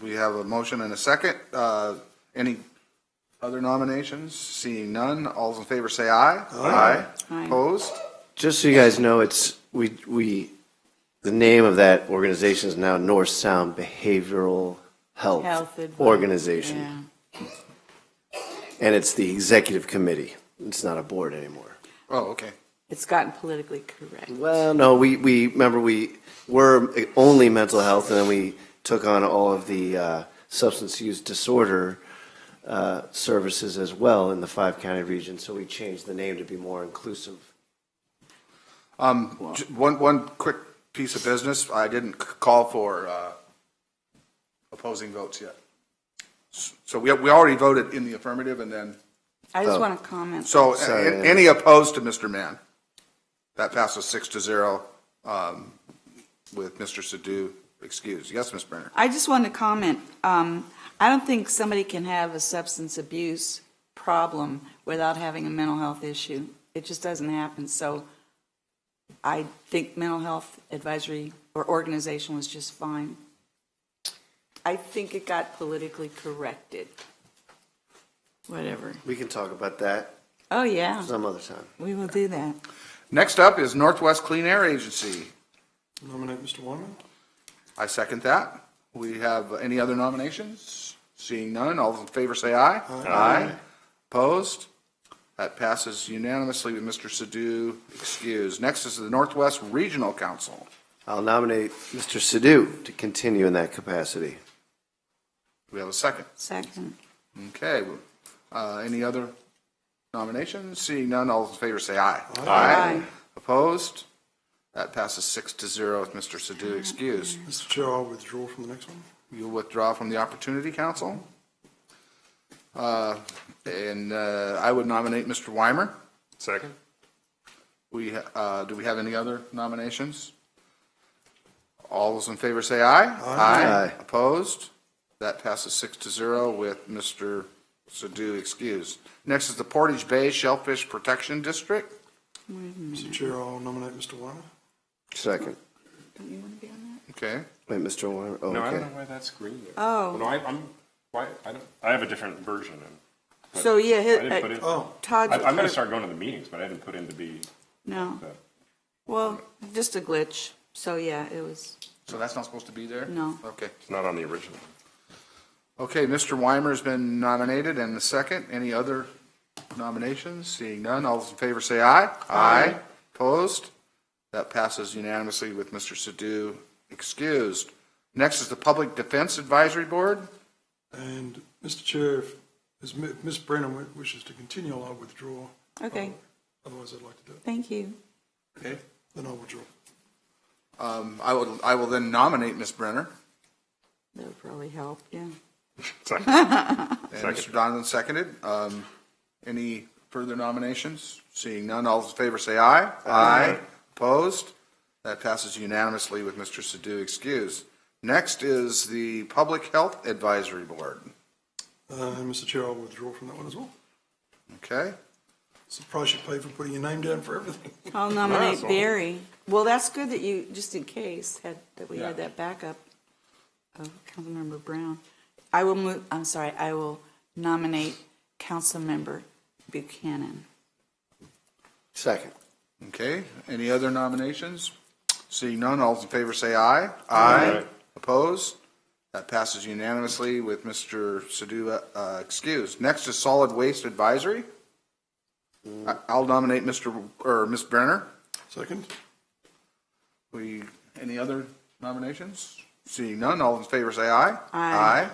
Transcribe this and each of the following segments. we have a motion and a second. Uh, Any other nominations? Seeing none, all in favor say aye. Aye. Aye. Opposed? Just so you guys know, it's, we, we, the name of that organization is now North Sound Behavioral Health Health advi- Organization. Yeah. And it's the executive committee. It's not a board anymore. Oh, okay. It's gotten politically correct. Well, no, we, we, remember, we were only mental health, and then we took on all of the uh, substance use disorder uh, services as well in the five-county region, so we changed the name to be more inclusive. Um, j- One, one quick piece of business. I didn't c- call for uh, opposing votes yet. S- So we, we already voted in the affirmative and then, I just want to comment. so a- Sorry, a- yeah. any opposed to Mr. Mann? That passes six to zero um, with Mr. Sadoo excused. Yes, Ms. Brenner? I just want to comment, um, I don't think somebody can have a substance abuse problem without having a mental health issue. It just doesn't happen, so I think mental health advisory or organization was just fine. I think it got politically corrected. Whatever. We can talk about that Oh, yeah, some other time. we will do that. Next up is Northwest Clean Air Agency. Nominate Mr. Wyman? I second that. We have any other nominations? Seeing none, all in favor say aye. Aye. Opposed? That passes unanimously with Mr. Sadoo excused. Next is the Northwest Regional Council. I'll nominate Mr. Sadoo to continue in that capacity. We have a second. Second. Okay. Uh, Any other nominations? Seeing none, all in favor say aye. Aye. Opposed? That passes six to zero with Mr. Sadoo excused. Mr. Chair, I'll withdraw from the next one. You'll withdraw from the Opportunity Council. Uh, And uh, I would nominate Mr. Weimer. Second? We, uh, do we have any other nominations? All those in favor say aye. Aye. Opposed? That passes six to zero with Mr. Sadoo excused. Next is the Portage Bay Shellfish Protection District. Mr. Chair, I'll nominate Mr. Wyman. Second. Don't you want to be on Okay. Wait, Mr. Wymer, oh, No, I don't okay. know why that's green there. Oh. No, I, I'm, why, I don't, I have a different version and that? So, yeah, I didn't put hi- in. uh, Todd's. I, I'm gonna start going to the meetings, but I didn't put in to be No. the. Well, just a glitch. So yeah, it was. So that's not supposed to be there? No. Okay. It's not on the original. Okay, Mr. Weimer's been nominated and the second. Any other nominations? Seeing none, all those in favor say aye. Aye. Opposed? That passes unanimously with Mr. Sadoo excused. Next is the Public Defense Advisory Board. And, Mr. Chair, if as Mi- if Ms. Brennan wi- wishes to continue, I'll withdraw. Okay, Otherwise, I'd like to do it. thank you. Okay. Then I'll withdraw. Um, I will, I will then nominate Ms. Brenner. That would probably help, yeah. Second. And Mr. Donovan seconded. Um, Any further nominations? Seeing none, all those in favor say aye. Aye. Opposed? That passes unanimously with Mr. Sadoo excused. Next is the Public Health Advisory Board. Uh, And, Mr. Chair, I'll withdraw from that one as well. Okay? It's the price you pay for putting your name down for everything. I'll nominate Barry. Well, that's good that you, just in case, had, that we had that backup of Councilmember Brown. I will move, I'm sorry, I will nominate Councilmember Buchanan. Second. Okay, any other nominations? Seeing none, all in favor say aye. Aye. Opposed? That passes unanimously with Mr. Sadoo uh, excused. Next is Solid Waste Advisory. I- I'll nominate Mr., or Ms. Brenner. Second? We, any other nominations? Seeing none, all in favor say aye. Aye.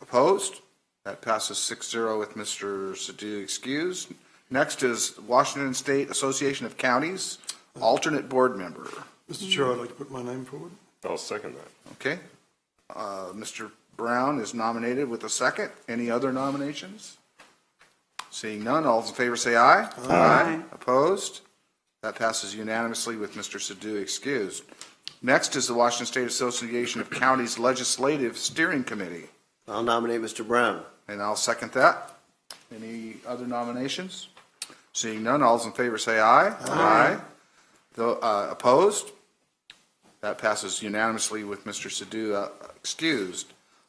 Opposed? That passes 6-0 with Mr. Sadoo excused. Next is Washington State Association of Counties, alternate board member. Mr. Chair, I'd like to put my name forward. I'll second that. Okay? Uh, Mr. Brown is nominated with a second. Any other nominations? Seeing none, all in favor say aye. Aye. Opposed? That passes unanimously with Mr. Sadoo excused. Next is the Washington State Association of Counties Legislative Steering Committee, I'll nominate Mr. Brown. and I'll second that. Any other nominations? Seeing none, all's in favor say aye. Aye. Though, uh, opposed? That passes unanimously with Mr. Sadoo uh, excused.